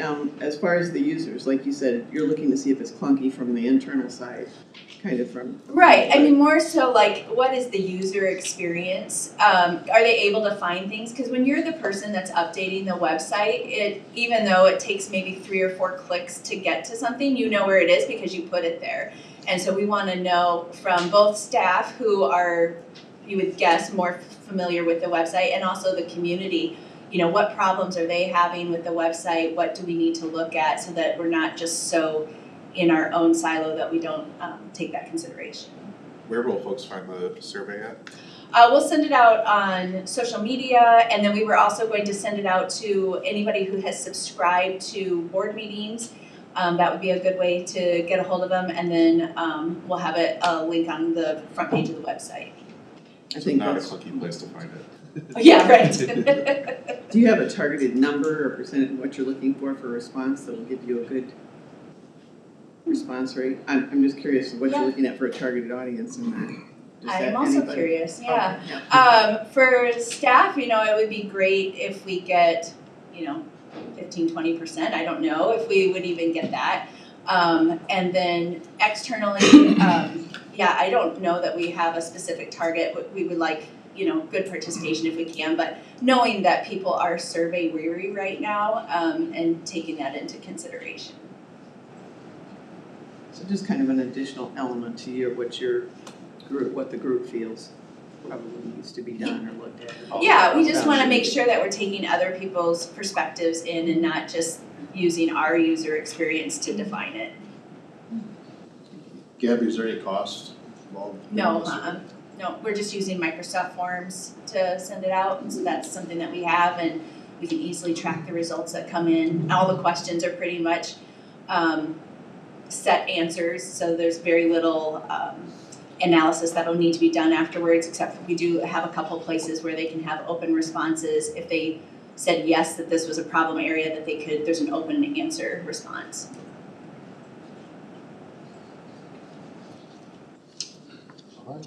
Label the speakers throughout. Speaker 1: um, as far as the users, like you said, you're looking to see if it's clunky from the internal side, kind of from.
Speaker 2: Right, I mean, more so like, what is the user experience? Um, are they able to find things? Because when you're the person that's updating the website, it, even though it takes maybe three or four clicks to get to something, you know where it is because you put it there. And so we want to know from both staff who are, you would guess, more familiar with the website and also the community. You know, what problems are they having with the website? What do we need to look at so that we're not just so in our own silo that we don't um, take that consideration.
Speaker 3: Where will folks find the survey at?
Speaker 2: Uh, we'll send it out on social media, and then we were also going to send it out to anybody who has subscribed to board meetings. Um, that would be a good way to get a hold of them, and then um, we'll have it a link on the front page of the website.
Speaker 1: I think
Speaker 3: Not a
Speaker 1: that's,
Speaker 3: clunky place to find it.
Speaker 2: Oh, yeah, right.
Speaker 1: do you have a targeted number or percentage of what you're looking for for response that'll give you a good response rate? I'm, I'm just curious what you're
Speaker 2: Yeah.
Speaker 1: looking at for a targeted audience and that. Is that
Speaker 2: I'm also
Speaker 1: anybody?
Speaker 2: curious.
Speaker 1: Okay,
Speaker 2: Yeah. Um, for staff, you know, it would be great if we get, you know, 15, 20%. I don't know if we would even get that. Um, and then externally, um, yeah, I don't know that we have a specific target. but We would like, you know, good participation if we can, but knowing that people are survey weary right now um, and taking that into consideration.
Speaker 1: So just kind of an additional element to your, what your group, what the group feels probably needs to be done or looked at.
Speaker 2: Yeah, we just
Speaker 1: About
Speaker 2: wanna
Speaker 1: you.
Speaker 2: make sure that we're taking other people's perspectives in and not just using our user experience to define it.
Speaker 4: Gabby, is there any cost involved? in
Speaker 2: No,
Speaker 4: this?
Speaker 2: uh-uh, no, we're just using Microsoft Forms to send it out, and so that's something that we have, and we can easily track the results that come in. All the questions are pretty much, um, set answers, so there's very little, um, analysis that'll need to be done afterwards, except for we do have a couple places where they can have open responses. If they said yes, that this was a problem area, that they could, there's an open answer response.
Speaker 4: All right.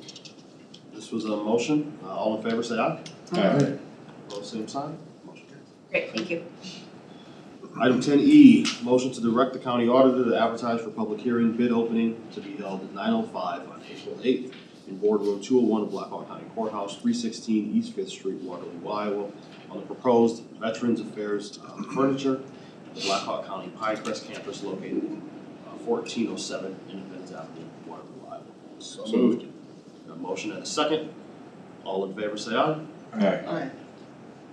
Speaker 4: This was a motion, Uh, all in favor, say aye.
Speaker 3: Aye.
Speaker 4: Opposed, same sign, motion carries.
Speaker 2: Great, thank you.
Speaker 4: Item ten E, motion to direct the county auditor to advertise for public hearing bid opening to be held at nine oh five on April eighth in boardroom two oh one of Blackhawk County Courthouse, three sixteen East Fifth Street, Waterloo, Iowa, on the proposed Veterans Affairs um, furniture, the Blackhawk County Pinecrest campus located fourteen oh seven Independence Avenue, Waterloo, Iowa. So moved. Got a motion and a second. All in favor, say aye.
Speaker 3: Alright.
Speaker 1: Alright,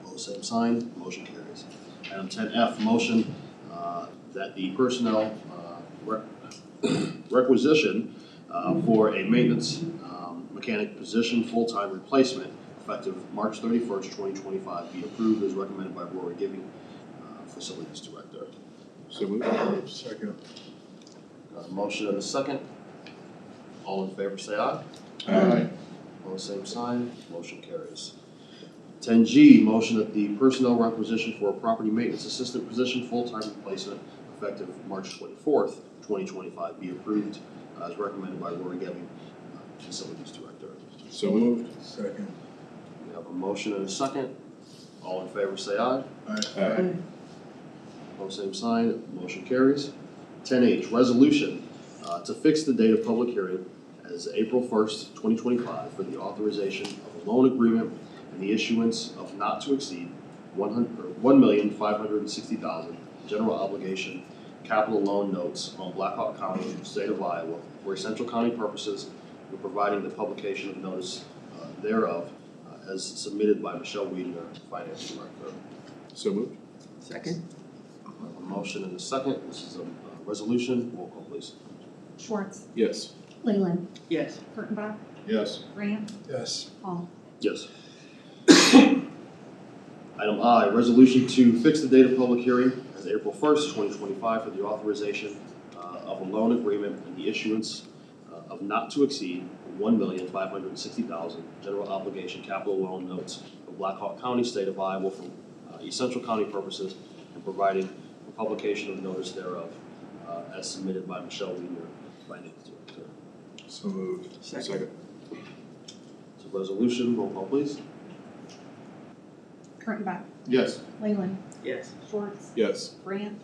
Speaker 4: Opposed, same sign, motion carries. Item ten F, motion uh, that the personnel uh, re- requisition uh, for a maintenance um, mechanic position, full-time replacement, effective March thirty-first, twenty twenty-five, be approved as recommended by Rory Giving, uh, Facilities Director.
Speaker 3: So moved. Second.
Speaker 4: Got a motion and a second. All in favor, say aye.
Speaker 3: Alright.
Speaker 4: All the same sign, motion carries. Ten G, motion that the personnel requisition for a property maintenance assistant position, full-time replacement, effective March twenty-fourth, twenty twenty-five, be approved uh, as recommended by Lori Gemming, uh, Facilities Director.
Speaker 3: So moved. Second.
Speaker 4: We have a motion and a second. All in favor, say aye.
Speaker 3: Alright.
Speaker 4: All the same sign, motion carries. Ten H, resolution uh, to fix the date of public hearing as April first, twenty twenty-five for the authorization of a loan agreement and the issuance of not to exceed one hundred, one million, five hundred and sixty thousand general obligation capital loan notes on Blackhawk County, state of Iowa, for essential county purposes, and providing the publication of notice uh, thereof uh, as submitted by Michelle Weidner, Finance Director.
Speaker 3: So moved.
Speaker 1: second,
Speaker 4: I have a motion and a second, this is a uh, resolution, roll call please.
Speaker 5: Schwartz,
Speaker 3: Yes.
Speaker 5: Leyland,
Speaker 1: yes.
Speaker 5: Kurttenbach,
Speaker 3: Yes.
Speaker 5: Graham,
Speaker 3: Yes.
Speaker 5: Paul.
Speaker 4: Yes. Item I, resolution to fix the date of public hearing as April first, twenty twenty-five for the authorization uh, of a loan agreement and the issuance uh, of not to exceed one million five hundred and sixty thousand general obligation capital loan notes of Blackhawk County, state of Iowa for uh, essential county purposes and providing for publication of notice thereof uh, as submitted by Michelle Weiner, Finance Director.
Speaker 3: So moved.
Speaker 1: Second.
Speaker 4: So resolution, roll call please.
Speaker 5: Kurttenbach,
Speaker 3: Yes.
Speaker 5: Leyland,
Speaker 1: Yes.
Speaker 5: Schwartz,
Speaker 3: Yes.
Speaker 5: Graham,